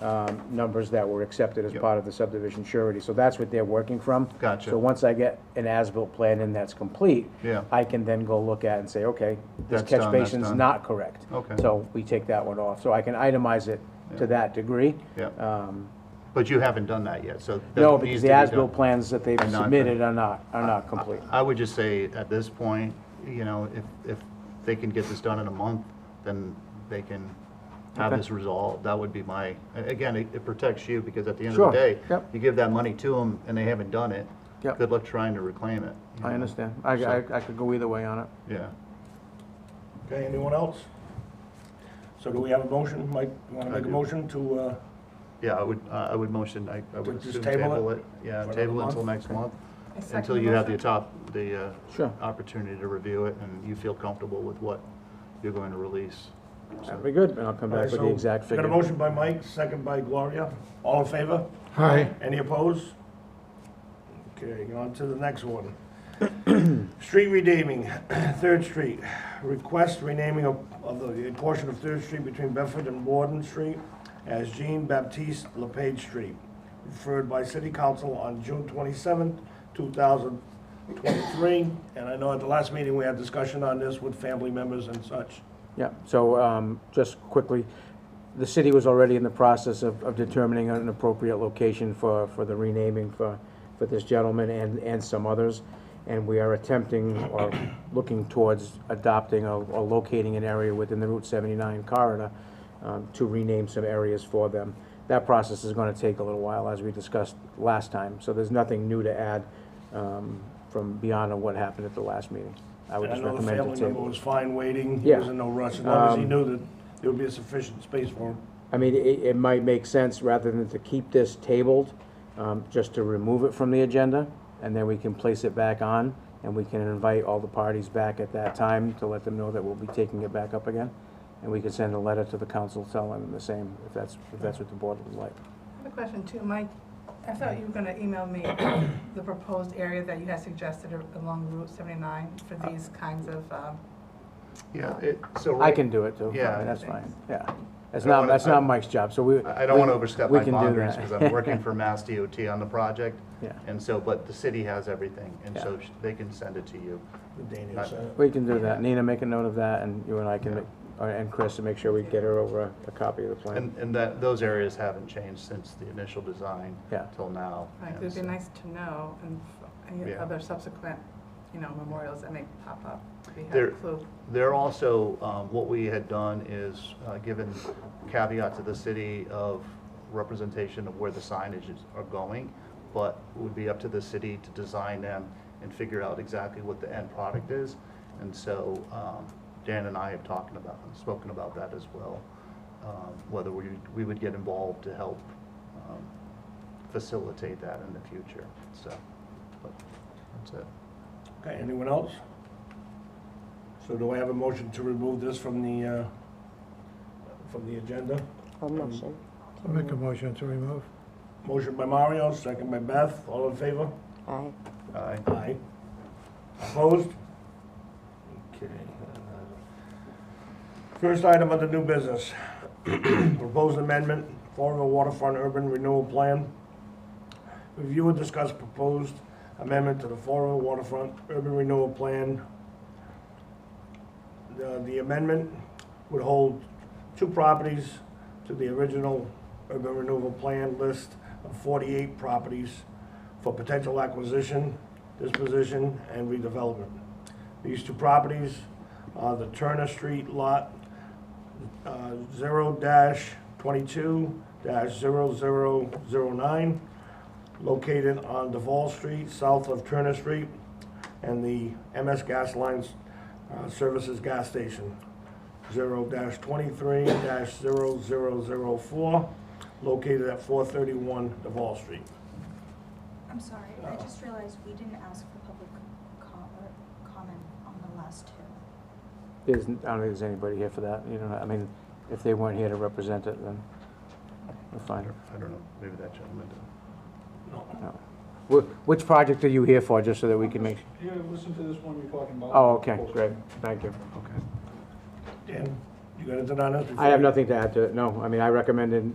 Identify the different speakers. Speaker 1: um, numbers that were accepted as
Speaker 2: Yep.
Speaker 1: part of the subdivision surety. So that's what they're working from.
Speaker 2: Gotcha.
Speaker 1: So once I get an as-built plan in that's complete,
Speaker 2: Yeah.
Speaker 1: I can then go look at and say, okay, this
Speaker 2: That's
Speaker 1: catch
Speaker 2: done, that's
Speaker 1: basin's
Speaker 2: done.
Speaker 1: not correct.
Speaker 2: Okay.
Speaker 1: So we take that one off. So I can itemize it
Speaker 2: Yeah.
Speaker 1: to that degree.
Speaker 2: Yeah.
Speaker 1: Um,
Speaker 2: But you haven't done that yet, so. that
Speaker 1: No,
Speaker 2: needs
Speaker 1: because
Speaker 2: to
Speaker 1: the
Speaker 2: be
Speaker 1: as-built
Speaker 2: done.
Speaker 1: plans that they've
Speaker 2: Are not
Speaker 1: submitted are not, are not complete.
Speaker 2: I would just say, at this point, you know, if, if they can get this done in a month, then they can have
Speaker 1: Okay.
Speaker 2: this resolved. That would be my, a- again, it it protects you, because at the end
Speaker 1: Sure,
Speaker 2: of the day,
Speaker 1: yep.
Speaker 2: you give that money to them and they haven't done it.
Speaker 1: Yep.
Speaker 2: Good luck trying to reclaim it. you
Speaker 1: I
Speaker 2: know?
Speaker 1: understand. I, I I could go either way on it.
Speaker 2: Yeah.
Speaker 3: Okay, anyone else? So do we have a motion? Mike, you want
Speaker 2: I
Speaker 3: to make a
Speaker 2: do.
Speaker 3: motion to, uh,
Speaker 2: Yeah, I would, I I would motion, I I would
Speaker 3: Just
Speaker 2: assume
Speaker 3: table
Speaker 2: table
Speaker 3: it?
Speaker 2: it. Yeah,
Speaker 3: For another
Speaker 2: table it until
Speaker 3: month?
Speaker 2: next month,
Speaker 4: I second
Speaker 2: until
Speaker 4: the
Speaker 2: you have the
Speaker 4: motion.
Speaker 2: top, the uh,
Speaker 1: Sure.
Speaker 2: opportunity to review it and you feel comfortable with what you're going to release. So-
Speaker 1: That'd be good, and I'll come back with
Speaker 3: so
Speaker 1: the exact figure.
Speaker 3: Got a motion by Mike, second by Gloria. All in favor?
Speaker 5: Hi.
Speaker 3: Any opposed? Okay, on to the next one. Street renaming, Third Street. Request renaming of, of the portion of Third Street between Bedford and Warden Street as Jean Baptiste LePage Street, referred by City Council on June twenty-seventh, two thousand twenty-three. And I know at the last meeting, we had discussion on this with family members and such.
Speaker 1: Yeah, so um, just quickly, the city was already in the process of of determining an appropriate location for, for the renaming for, for this gentleman and, and some others. And we are attempting or looking towards adopting or or locating an area within the Route 79 corridor um, to rename some areas for them. That process is going to take a little while, as we discussed last time. So there's nothing new to add um, from beyond what happened at the last meeting. I would
Speaker 3: And I
Speaker 1: just
Speaker 3: know the
Speaker 1: recommend
Speaker 3: family
Speaker 1: to
Speaker 3: member
Speaker 1: table.
Speaker 3: was fine waiting. He was
Speaker 1: Yeah.
Speaker 3: in no rush, as long as he
Speaker 1: Um,
Speaker 3: knew that there would be a sufficient space for him.
Speaker 1: I mean, it, it might make sense, rather than to keep this tabled, um, just to remove it from the agenda, and then we can place it back on, and we can invite all the parties back at that time to let them know that we'll be taking it back up again. And we can send a letter to the council telling them the same, if that's, if that's what the board would like.
Speaker 4: I have a question too, Mike. I thought you were gonna email me the proposed area that you had suggested along Route 79 for
Speaker 2: Uh,
Speaker 4: these kinds of, um,
Speaker 2: Yeah, it, so.
Speaker 1: I can do it too,
Speaker 2: Yeah.
Speaker 1: that's fine, yeah. That's
Speaker 2: I don't
Speaker 1: not,
Speaker 2: wanna-
Speaker 1: that's not Mike's job, so we.
Speaker 2: I I don't want to overstep
Speaker 1: we
Speaker 2: my
Speaker 1: can do
Speaker 2: boundaries
Speaker 1: that.
Speaker 2: because I'm working for Mass DOT on the project.
Speaker 1: Yeah.
Speaker 2: And so, but the city has everything, and
Speaker 1: Yeah.
Speaker 2: so sh- they can send it to you.
Speaker 3: Daniel
Speaker 2: Not-
Speaker 3: said.
Speaker 1: We can do that. Nina, make a note of that, and you and I can make, or- and Chris, to make sure we get her over a- a copy of the plan.
Speaker 2: And, and that, those areas haven't changed since the initial design.
Speaker 1: Yeah.
Speaker 2: Till now.
Speaker 4: like,
Speaker 2: and
Speaker 4: it'd be
Speaker 2: so-
Speaker 4: nice to know and f- any
Speaker 2: Yeah.
Speaker 4: other subsequent, you know, memorials that may pop up. We have
Speaker 2: There-
Speaker 4: a clue.
Speaker 2: They're also, um, what we had done is uh, given caveat to the city of representation of where the signages are going, but it would be up to the city to design them and figure out exactly what the end product is. And so um, Dan and I have talked about, spoken about that as well, um, whether we, we would get involved to help um, facilitate that in the future, so. but That's it.
Speaker 3: Okay, anyone else? So do I have a motion to remove this from the, uh, from the agenda?
Speaker 6: I'll motion.
Speaker 5: I'll make a motion to remove.
Speaker 3: Motion by Mario, second by Beth, all in favor?
Speaker 6: Aye.
Speaker 2: Aye.
Speaker 3: Aye. Opposed? Okay. uh, First item of the new business, proposed amendment, Fall River Waterfront Urban Renewal Plan. Review and discuss proposed amendment to the Fall River Waterfront Urban Renewal Plan. The the amendment would hold two properties to the original urban renewal plan list of 48 properties for potential acquisition, disposition, and redevelopment. These two properties are the Turner Street Lot uh, zero dash twenty-two dash zero zero zero nine, located on Deval Street, south of Turner Street, and the MS Gas Lines uh, Services Gas Station, zero dash twenty-three dash zero zero zero four, located at four thirty-one Deval Street.
Speaker 7: I'm sorry, I just realized we didn't ask for public com- or comment on the last two.
Speaker 1: There's, I don't think there's anybody here for that, you know, I mean, if they weren't here to represent it, then we're
Speaker 2: I
Speaker 1: fine.
Speaker 2: don't I don't know, maybe that gentleman did.
Speaker 1: Wh- Which project are you here for, just so that we can make?
Speaker 8: Yeah, listen to this one you're talking about.
Speaker 1: Oh, okay, great, thank you.
Speaker 2: Okay.
Speaker 3: Dan, you got anything on this?
Speaker 1: I have
Speaker 3: before-
Speaker 1: nothing to add to it, no, I mean, I recommended